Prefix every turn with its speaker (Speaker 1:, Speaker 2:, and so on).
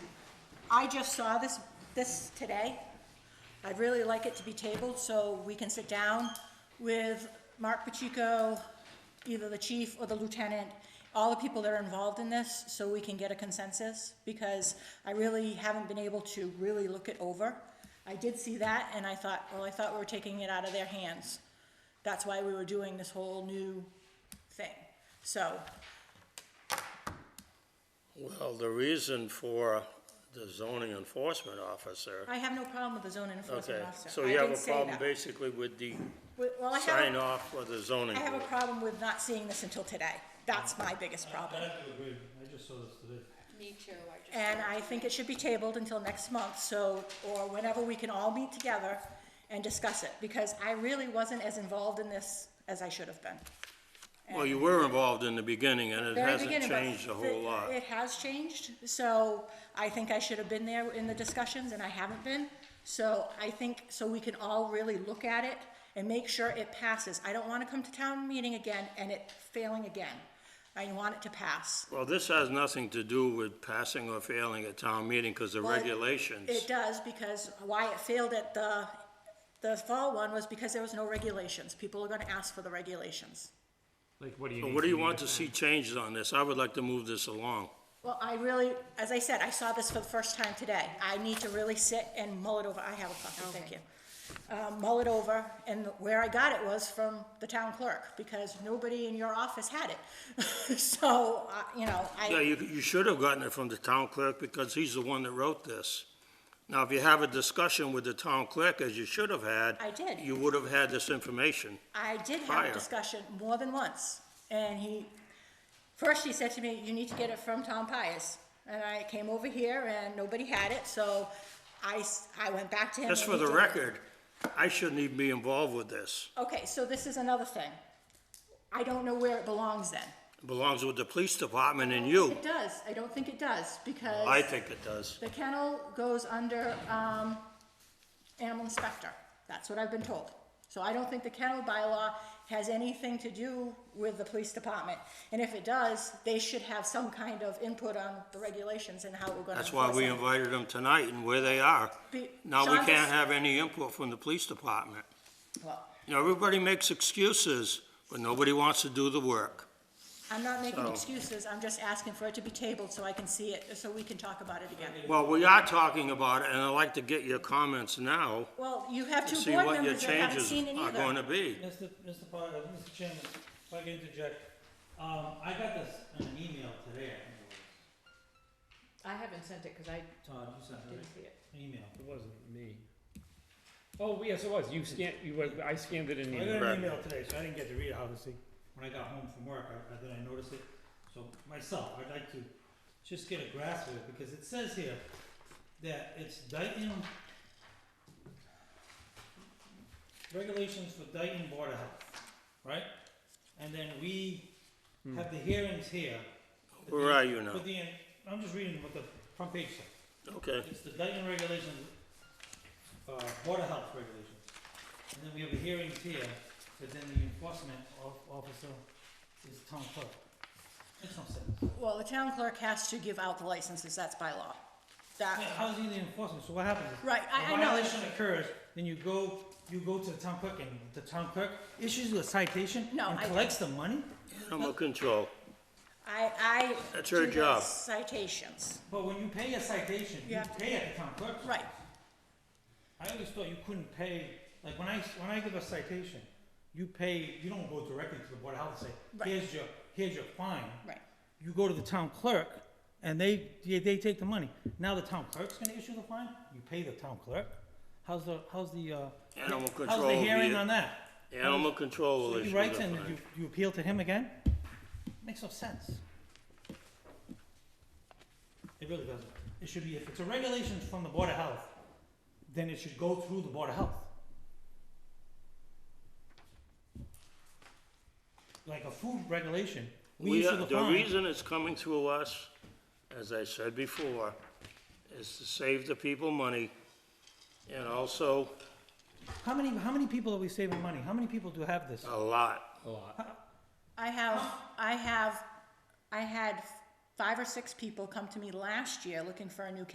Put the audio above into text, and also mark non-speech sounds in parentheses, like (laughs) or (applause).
Speaker 1: I just saw this, this today. I'd really like it to be tabled so we can sit down with Mark Pacheco, either the chief or the lieutenant, all the people that are involved in this, so we can get a consensus, because I really haven't been able to really look it over. I did see that and I thought, well, I thought we were taking it out of their hands. That's why we were doing this whole new thing. So,
Speaker 2: Well, the reason for the zoning enforcement officer,
Speaker 1: I have no problem with the zoning enforcement
Speaker 2: okay,
Speaker 1: officer.
Speaker 2: so
Speaker 1: I
Speaker 2: you have
Speaker 1: did
Speaker 2: a
Speaker 1: say
Speaker 2: problem
Speaker 1: that.
Speaker 2: basically with the
Speaker 1: Well, well, I have a-
Speaker 2: sign off for the zoning
Speaker 1: I have a
Speaker 2: board?
Speaker 1: problem with not seeing this until today. That's my biggest problem.
Speaker 3: I agree, I just saw this today.
Speaker 4: Me too, I just.
Speaker 1: And I think it should be tabled until next month, so, or whenever we can all meet together and discuss it, because I really wasn't as involved in this as I should have been.
Speaker 2: Well, you were involved in the beginning and it
Speaker 1: Very
Speaker 2: hasn't
Speaker 1: beginning, but
Speaker 2: changed a whole
Speaker 1: it-
Speaker 2: lot.
Speaker 1: It has changed, so I think I should have been there in the discussions, and I haven't been. So I think, so we can all really look at it and make sure it passes. I don't wanna come to town meeting again and it failing again. I want it to pass.
Speaker 2: Well, this has nothing to do with passing or failing a town meeting because the
Speaker 1: Well, it-
Speaker 2: regulations.
Speaker 1: It does, because why it failed at the, the fall one was because there was no regulations. People are gonna ask for the regulations.
Speaker 3: Like, what do you
Speaker 2: So
Speaker 3: need?
Speaker 2: What do you
Speaker 3: me
Speaker 2: want to see changes on this? I would like to move this along.
Speaker 1: Well, I really, as I said, I saw this for the first time today. I need to really sit and mull it over. I have a copy, thank you. Um, Mull it over, and where I got it was from the town clerk, because nobody in your office had it. (laughs) So, uh, you know,
Speaker 2: Yeah,
Speaker 1: I,
Speaker 2: you, you should have gotten it from the town clerk because he's the one that wrote this. Now, if you have a discussion with the town clerk, as you should have had.
Speaker 1: I did.
Speaker 2: You would have had this information.
Speaker 1: I did have
Speaker 2: Prior.
Speaker 1: a discussion more than once, and he, first he said to me, you need to get it from Tom Pius. And I came over here and nobody had it, so I, s- I went back to him.
Speaker 2: Just
Speaker 1: and
Speaker 2: for
Speaker 1: he
Speaker 2: the
Speaker 1: did it.
Speaker 2: record, I shouldn't even be involved with this.
Speaker 1: Okay, so this is another thing. I don't know where it belongs then.
Speaker 2: It Belongs with the police department and you.
Speaker 1: It does, I don't think it does, because.
Speaker 2: I think it does.
Speaker 1: The kennel goes under, um, animal inspector, that's what I've been told. So I don't think the kennel bylaw has anything to do with the police department. And if it does, they should have some kind of input on the regulations and how we're gonna
Speaker 2: That's why
Speaker 1: enforce
Speaker 2: we
Speaker 1: them.
Speaker 2: invited them tonight and where they are.
Speaker 1: Be-
Speaker 2: Now, we
Speaker 1: Sean,
Speaker 2: can't
Speaker 1: this-
Speaker 2: have any input from the police department.
Speaker 1: Well,
Speaker 2: You know, everybody makes excuses, but nobody wants to do the work.
Speaker 1: I'm not making
Speaker 2: So-
Speaker 1: excuses, I'm just asking for it to be tabled so I can see it, so we can talk about it again.
Speaker 2: Well, we are talking about it, and I'd like to get your comments now
Speaker 1: Well, you have
Speaker 2: to
Speaker 1: two
Speaker 2: see
Speaker 1: board
Speaker 2: what your
Speaker 1: members that haven't
Speaker 2: changes
Speaker 1: seen it
Speaker 2: are going to
Speaker 1: either.
Speaker 2: be.
Speaker 3: Mr. Mr. Potter, Mr. Chairman, if I can interject, um, I got this in an email today, I think it
Speaker 4: I haven't sent it, cause I
Speaker 3: was. Todd, you sent it,
Speaker 4: didn't
Speaker 3: right?
Speaker 4: see it.
Speaker 3: An email.
Speaker 5: It wasn't me. Oh, yes, it was. You scanned, you, were- I scanned it in.
Speaker 3: I
Speaker 5: the-
Speaker 3: got
Speaker 2: Right.
Speaker 3: an email today, so I didn't get to read it, obviously. When I got home from work, I, I, then I noticed it. So myself, I'd like to just get a grasp of it, because it says here that it's Dayton regulations for Dayton Board of Health, right? And then we have the hearings here. with
Speaker 2: Where
Speaker 3: the-
Speaker 2: are you now?
Speaker 3: with the- I'm just reading what the front page says.
Speaker 2: Okay.
Speaker 3: It's the Dayton regulations, uh, Board of Health regulations. And then we have the hearings here, but then the enforcement of- officer is town clerk. Makes no sense.
Speaker 1: Well, the town clerk has to give out the licenses, that's by law. That,
Speaker 3: Yeah, How's he the enforcement? So what happens? is
Speaker 1: Right, I- I know.
Speaker 3: A violation occurs, then you go, you go to the town clerk and the town clerk issues you a citation
Speaker 1: No,
Speaker 3: and
Speaker 1: I-
Speaker 3: collects the money?
Speaker 2: Animal control.
Speaker 1: I, I.
Speaker 2: That's her
Speaker 1: do the
Speaker 2: job.
Speaker 1: Citations,
Speaker 3: But when you pay a citation, you
Speaker 1: Yeah.
Speaker 3: pay at the town clerk's
Speaker 1: right.
Speaker 3: I always thought you couldn't pay, like when I, when I give a citation, you pay, you don't go directly to the Board of Health and
Speaker 1: Right.
Speaker 3: say, here's your, here's your fine.
Speaker 1: Right.
Speaker 3: You go to the town clerk and they, they, they take the money. Now the town clerk's gonna issue the fine, you pay the town clerk. How's the, how's the, uh,
Speaker 2: Animal
Speaker 3: how's
Speaker 2: control
Speaker 3: the
Speaker 2: will be
Speaker 3: hearing
Speaker 2: it.
Speaker 3: on that?
Speaker 2: Animal control will
Speaker 3: So
Speaker 2: issue
Speaker 3: he
Speaker 2: the
Speaker 3: writes in,
Speaker 2: fine.
Speaker 3: you, you appeal to him again? Makes no sense. It really doesn't. It should be, if it's a regulation from the Board of Health, then it should go through the Board of Health. Like a food regulation, we
Speaker 2: We,
Speaker 3: issue
Speaker 2: are-
Speaker 3: the
Speaker 2: the
Speaker 3: fine.
Speaker 2: reason it's coming through us, as I said before, is to save the people money and also
Speaker 3: How many, how many people are we saving money? How many people do have this?
Speaker 2: a lot.
Speaker 1: I have, I have, I had five or six people come to me last year looking for a new